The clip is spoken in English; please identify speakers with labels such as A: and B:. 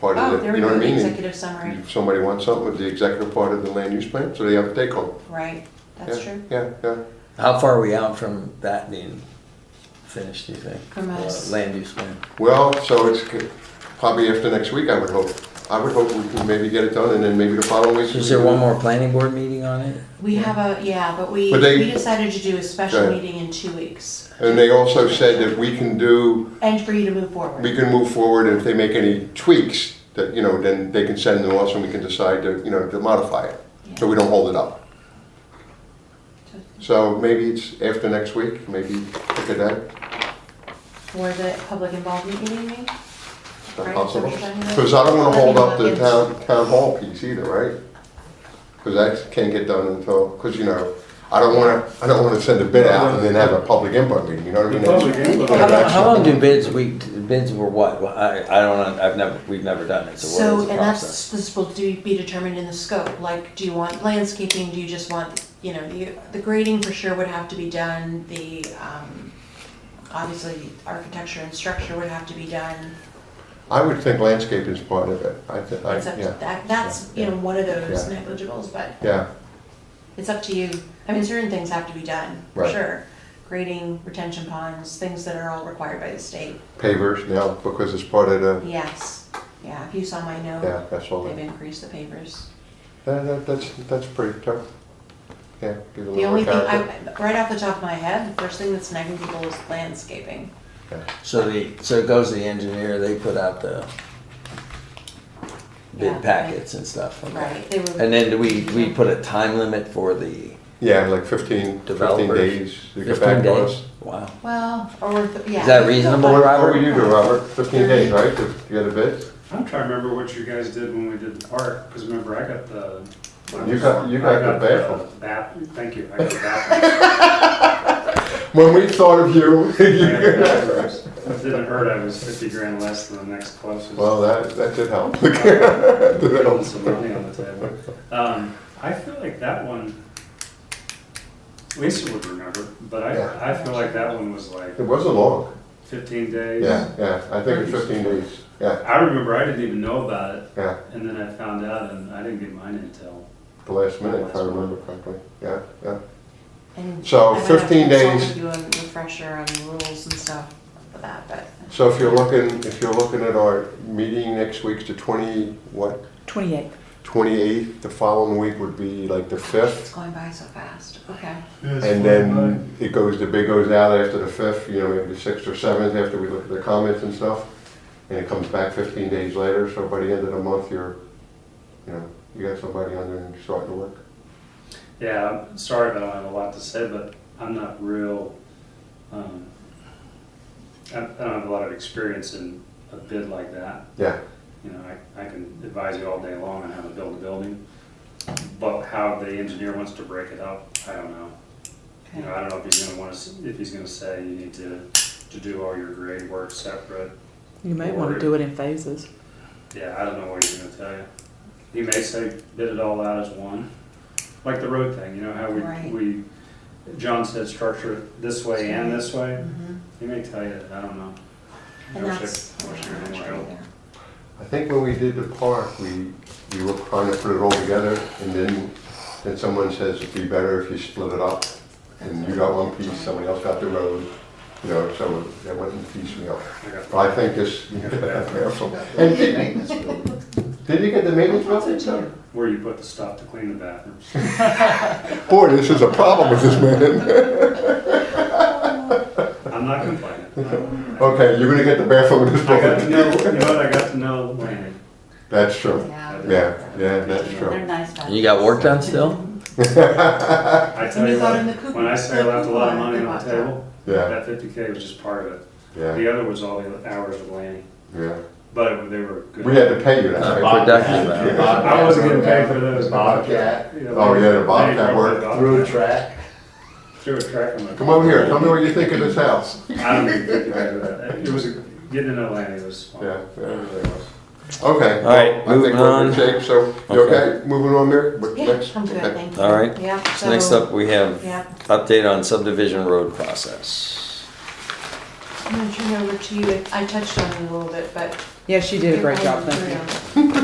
A: part
B: Oh,
A: of the,
B: there
A: you
B: we
A: know
B: go,
A: what I
B: the
A: mean?
B: executive summary,
A: If somebody wants something with the executive part of the land use plan, so they have to take home.
B: right, that's
A: Yeah,
B: true.
A: Yeah, yeah.
C: How far are we out from that being finished, do you think?
B: From
C: The
B: us.
C: Land use plan.
A: Well, so it's c- probably after next week, I would hope. I would hope we can maybe get it done and then maybe the following week.
C: So Is there one more planning board meeting on it?
B: We have a, yeah, but we,
A: But they-
B: we decided to do a special
A: Right.
B: meeting in two weeks,
A: And they also said that we can do,
B: and for you to move forward.
A: we can move forward and if they make any tweaks, that, you know, then they can send them us and we can decide to, you know, to modify it. So we don't hold it up. So maybe it's after next week, maybe look at that.
B: For the public involvement meeting, maybe?
A: Is that
B: Right, is
A: possible?
B: that what you're talking about?
A: Because I don't want to hold up the
B: Yes.
A: town, town hall piece either, right? Because that can't get done until, because you know, I don't want to, I don't want to send a bid out and then have a public input meeting, you know what I mean?
D: The public input.
C: How long,
A: That's-
C: how long do bids, we, bids were what? Well, I, I don't, know. I've never, we've never done it, so
B: So,
C: what is the
B: and that's,
C: process?
B: this will do, be determined in the scope, like, do you want landscaping, do you just want, you know, you, the grading for sure would have to be done, the, um, obviously, architecture and structure would have to be done.
A: I would think landscape is part of it, I, thi- I,
B: It's up to,
A: yeah,
B: that, that's, you know, one of those
A: Yeah.
B: negligibles, but
A: yeah,
B: it's up to you. I mean, certain things have to be done, for
A: Right.
B: sure. Grading, retention ponds, things that are all required by the state,
A: pavers now, because it's part of the,
B: yes, yeah, if you saw my
A: yeah,
B: note,
A: that's all.
B: they've
A: that-
B: increased the papers.
A: That, that, that's, that's pretty tough. Yeah. give it a
B: The
A: little
B: only thing,
A: more
B: I,
A: character.
B: right off the top of my head, the first thing that's nagging people is landscaping.
A: Yeah.
C: So the, so it goes to the engineer, they put out the
B: Yeah.
C: bid packets and stuff, okay?
B: Right, they were.
C: And then do we, we put a time limit for the
A: Yeah, like 15, 15
C: developers?
A: days to get
C: Fifteen
A: back to
C: days?
A: us.
C: Wow.
B: Well, or, th- yeah.
C: Is that reasonable,
A: What,
C: Rob?
A: what would you do, Robert? 15 days, right, to get a bid?
D: I'm trying to remember what you guys did when we did the park, because remember, I got the.
A: You got- you got
D: I
A: the bathroom.
D: bath- thank you, I got the bathroom.
A: When we thought of you,
D: I got the
A: you-
D: bathrooms. It didn't hurt, I was fifty grand less than the next closest.
A: well, that, that did help.
D: Putting some money on the table. Um, I feel like that one, Lisa would remember, but
A: Yeah.
D: I, I feel like that one was like
A: It wasn't long.
D: fifteen days.
A: Yeah, yeah, I think it's 15 days. Yeah,
D: I remember I didn't even know about it,
A: yeah,
D: and then I found out, and I didn't get mine until
A: the last minute, if I remember correctly. Yeah, yeah.
B: And
A: So
B: I might have to
A: 15
B: consult
A: days.
B: with You a refresher on the rules and stuff for that, but.
A: So if you're looking, if you're looking at our meeting next week's the 20, what,
E: 28.
A: 28th, the following week would be like the 5th.
B: It's going by so fast, okay.
A: And then it goes, the bid goes out after the fifth, you know, maybe the sixth or seventh, after we look at the comments and stuff. And it comes back fifteen days later, so by the end of the month, you're, you know, you got somebody on there and you're starting to work.
D: Yeah, I'm sorry, but I don't have a lot to say, but I'm not real. Um, I, I don't have a lot of experience in a bid like that.
A: Yeah,
D: You know, I, I can advise you all day long on how to build a building, but how the engineer wants to break it up, I don't know. You know, I don't know if he's gonna want to, if he's gonna say you need to, to do all your grade work separate.
E: You might want to do it in phases.
D: Yeah, I don't know what he's gonna tell you. He may say bid it all out as one, like the road thing, you know, how
B: Right.
D: we, we, John said structure it this way and this way.
B: Mhm.
D: He may tell you, I don't know. I
B: And
D: wish I-
B: that's.
D: I wish I
B: I'm
D: knew
B: not
D: more
B: sure
D: help.
B: either.
A: I think when we did the park, we, we were trying to put it all together and then, then someone says it'd be better if you split it up. And you got one piece, somebody else got the road, you know, so that wasn't piecemeal.
D: I got-
A: But I think this, and did, did you get the maintenance building done?
D: Where you put the stuff to clean the bathrooms.
A: Boy, this is a problem with this man.
D: I'm not complaining. I
A: Okay, you're gonna get the bathroom in this
D: got to know,
A: building.
D: you know what, I got to know Lanny.
A: That's true.
B: Yeah.
A: Yeah, yeah, that's
B: They're
A: true.
B: nice guys.
C: And you got work done still?
D: I tell
B: And you
D: you
B: got in the
D: what,
B: coupon.
D: when I say I left a lot of money on the table,
A: Yeah,
D: that fifty K was just part of it.
A: yeah,
D: The other was all the hours of Lanny,
A: yeah.
D: but they were good.
A: We had to pay you that, right?
C: Production, man.
D: I wasn't getting paid for those.
F: Bobcat,
A: Oh, yeah, the Bobcat work.
F: through a track.
D: Through a track on the.
A: Come over here, tell me what you think of this house.
D: I don't even think about that. It was, a- getting to know Lanny was fun.
A: Yeah, yeah.
D: It really was.
A: Okay.
C: All
A: well, I
C: right,
A: think
C: moving
A: we're in
C: on.
A: good shape, so, you
C: Okay.
A: okay, moving on, Mary? What-
B: Yeah,
A: next?
B: I'm good,
A: Okay.
B: thank you.
C: All right.
B: Yeah.
C: So next
B: so-
C: up, we have
B: Yeah.
C: update on subdivision road process.
B: I'm gonna turn it over to you. I touched on it a little bit, but.
E: Yeah, she did a great job, thank you.